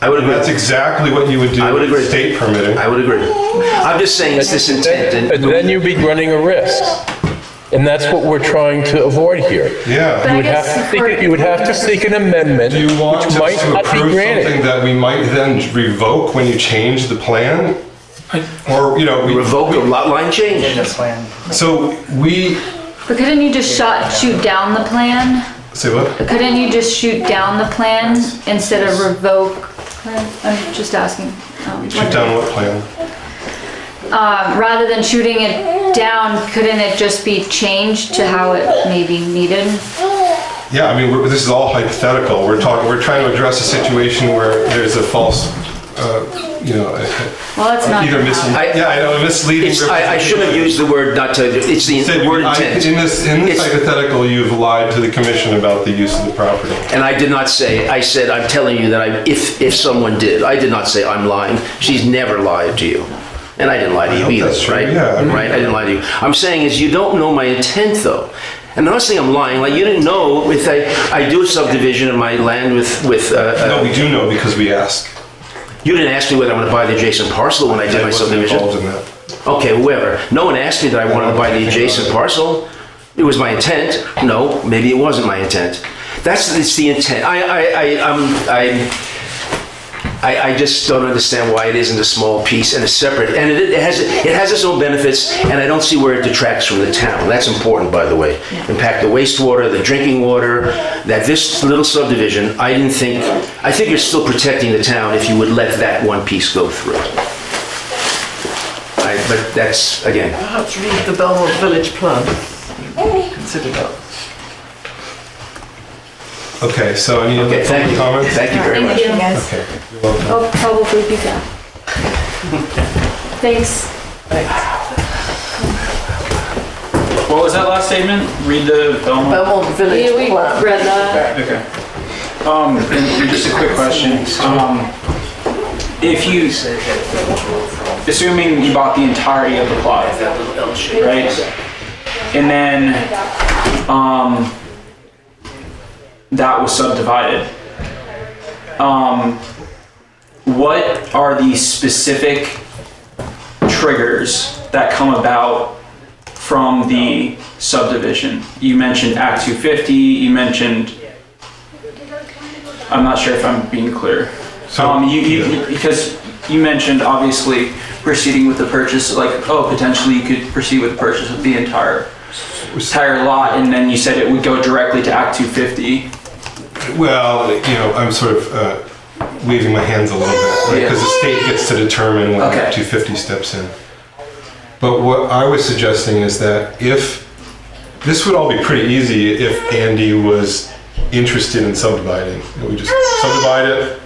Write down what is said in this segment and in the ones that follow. I would And agree. that's exactly what you would do I would agree. with state permitting. I would agree. I'm just saying it's this intent and. And then you'd be running a risk. And that's what we're trying to avoid here. You Yeah. would have to seek, you would have to seek an amendment, Do which you want us might to not be approve something granted. that we might then revoke when you change the plan? Or, you know, we- Revoke a lot line change. in the plan. so we, But couldn't you just shot, shoot down the plan? say what? Couldn't you just shoot down the plan instead of revoke? I'm just asking. um, Shoot down what plan? uh, Rather than shooting it down, couldn't it just be changed to how it may be needed? Yeah, I mean, we're- this is all hypothetical. We're talking, we're trying to address a situation where there's a false, uh, you know, a- Well, it's not. either I- misleading, yeah, I know, a misleading. It's, I, I should have used the word not to, it's the Said, word I- In intent. this, in this It's- hypothetical, you've lied to the commission about the use of the property. And I did not say, I said, I'm telling you that I, if, if someone did, I did not say I'm lying. She's never lied to you. And I didn't lie to you hope either, that's true, right? yeah. Right, I didn't lie to you. I'm saying is you don't know my intent though. And I'm not saying I'm lying, like you didn't know if I, I do a subdivision of my land with, with, uh, uh, No, we do know because we ask. you didn't ask me whether I'm gonna buy the adjacent parcel when I did I my wasn't subdivision. involved in that. Okay, whoever. No one asked me that I wanted to buy the adjacent parcel. It was my intent. No, maybe it wasn't my intent. That's, it's the intent. I, I, um, I, I'm, I'm, I, I just don't understand why it isn't a small piece and a separate, and it, it has, it has its own benefits, and I don't see where it detracts from the town. That's important, by the way. Impact the wastewater, the drinking water, that this little subdivision, I didn't think, I think you're still protecting the town if you would let that one piece go through. I, but that's, again, Perhaps read the Belmont Village plan. Consider that. Okay, so any other okay, thank public you. comments? Thank you very much. guys. Okay, you're welcome. I'll Oh, probably be back. Thanks. What was that last statement? Read the Belmont. Belmont Village Yeah, we plan. read that. Okay. Um, and and just a quick question. Um, if you, assuming you bought the entirety of the plot, right? And then, um, that was subdivided. Um, what are the specific triggers that come about from the subdivision? You mentioned Act 250, you mentioned, I'm not sure if I'm being clear. So- Um, you, you, because you mentioned obviously proceeding with the purchase, like, oh, potentially you could proceed with the purchase of the entire, entire lot, and then you said it would go directly to Act 250. Well, you know, I'm sort of uh, waving my hands a little bit because the state gets to determine when Okay. Act 250 steps in. But what I was suggesting is that if this would all be pretty easy if Andy was interested in subdividing, we just subdivide it,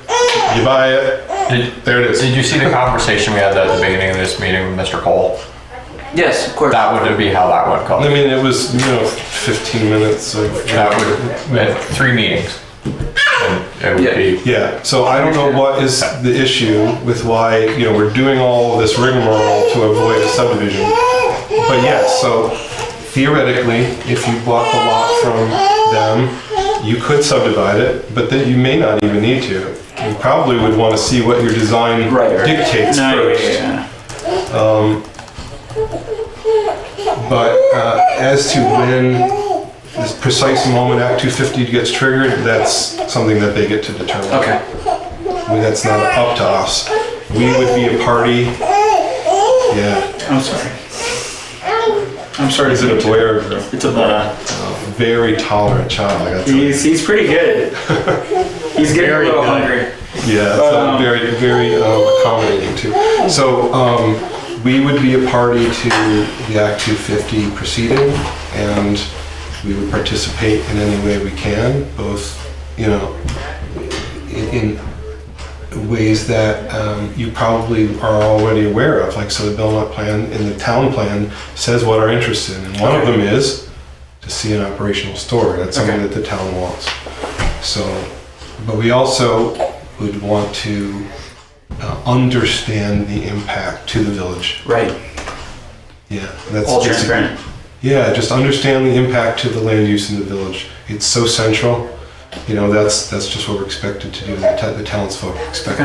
you buy it, Did, there it is. did you see the conversation we had at the beginning of this meeting with Mr. Cole? Yes, of course. That would be how that would I go. mean, it was you know 15 minutes of That would, at three meetings. And It would be, Yeah, so I don't know what is the issue with why, you know, we're doing all this rigmarole to avoid a subdivision. But yes, so theoretically, if you bought the lot from them, you could subdivide it, but then you may not even need to. You probably would want to see what your design Right, right. dictates No, yeah, yeah, first. yeah. But uh, as to when this precise moment Act 250 gets triggered, that's something that they get to determine. Okay. I mean, that's not up to us. We would be a party. Yeah. I'm sorry. I'm sorry. Is it a boy or a girl? It's a boy. Very tolerant child. I got He's, he's pretty good. He's getting a little hungry. Yeah, But, so um, very, very um, accommodating too. So um, we would be a party to the Act 250 proceeding, and we would participate in any way we can, both, you know, in, in ways that um, you probably are already aware of. Like, so the Belmont plan and the town plan says what our interest in, and one of them is to see an operational store. That's something Okay. that the town wants. So, but we also would want to uh, understand the impact to the village. Right. Yeah, that's All that's a- transparent. Yeah, just understand the impact to the land use in the village. It's so central. You know, that's that's just what we're expected to do. The, t- the townsfolk expect